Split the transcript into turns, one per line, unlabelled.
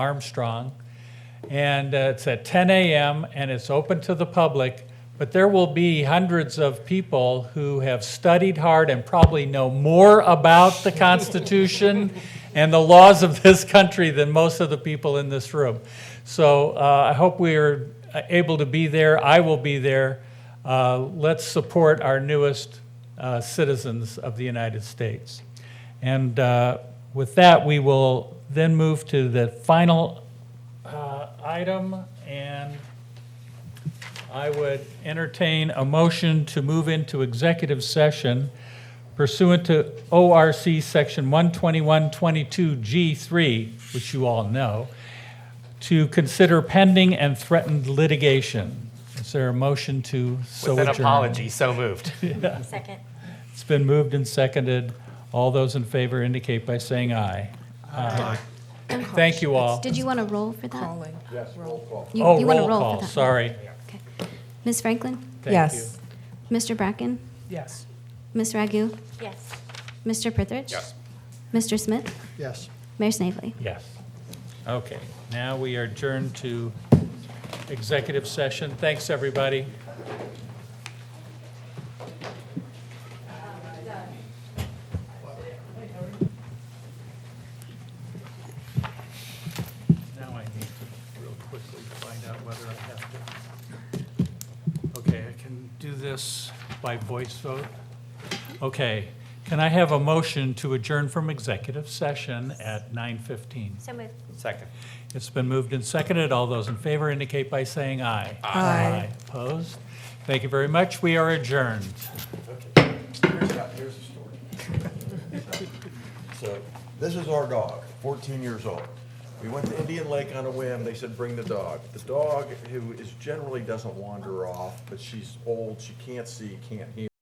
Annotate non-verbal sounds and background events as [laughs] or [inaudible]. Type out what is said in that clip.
Armstrong. And uh, it's at 10 a.m. and it's open to the public, but there will be hundreds of people who have studied hard and probably know more about the Constitution and the laws of this country than most of the people in this room. So uh, I hope we are able to be there. I will be there. Uh, Let's support our newest uh, citizens of the United States. And uh, with that, we will then move to the final uh, item, and I would entertain a motion to move into executive session pursuant to ORC Section 12122G3, which you all know, to consider pending and threatened litigation. Is there a motion to so
With
adjourn?
an apology, so moved. [laughs]
Second.
It's been moved and seconded. All those in favor indicate by saying aye. Aye. Thank you all.
Did you want to roll for that? Rolling. Yes, roll
Oh,
You want to
roll
roll
call,
for that?
sorry.
Okay. Ms. Franklin?
Thank you.
Yes.
Mr. Bracken?
Yes.
Ms. Ragu?
Yes.
Mr. Prithridge? Yes. Mr. Smith?
Yes.
Mayor Snavely?
Yes. Okay, now we are adjourned to executive session. Thanks, everybody. Now I need to real quickly find out whether I have to. Okay, I can do this by voice vote. Okay, can I have a motion to adjourn from executive session at 9:15?
So moved.
Second.
It's been moved and seconded. All those in favor indicate by saying aye.
Aye.
Opposed? Thank you very much. We are adjourned.
So this is our dog, 14 years old. We went to Indian Lake on a whim. They said, bring the dog. The dog, who is generally doesn't wander off, but she's old, she can't see, can't hear.